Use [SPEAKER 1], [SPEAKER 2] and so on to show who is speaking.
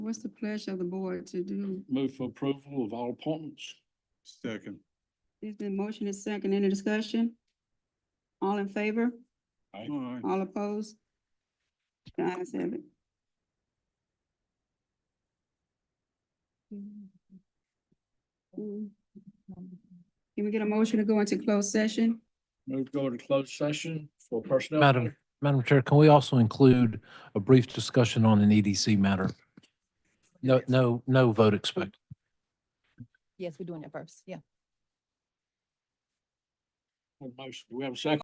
[SPEAKER 1] what's the pleasure of the board to do?
[SPEAKER 2] Move for approval of all appointments.
[SPEAKER 3] Second.
[SPEAKER 1] Is the motion is second, any discussion? All in favor?
[SPEAKER 3] All right.
[SPEAKER 1] All opposed? The ayes have it. Can we get a motion to go into closed session?
[SPEAKER 2] Move to go to closed session for personnel.
[SPEAKER 4] Madam, Madam Chair, can we also include a brief discussion on an EDC matter? No, no, no vote expected.
[SPEAKER 5] Yes, we're doing it first, yeah.
[SPEAKER 2] Motion. Do we have a second?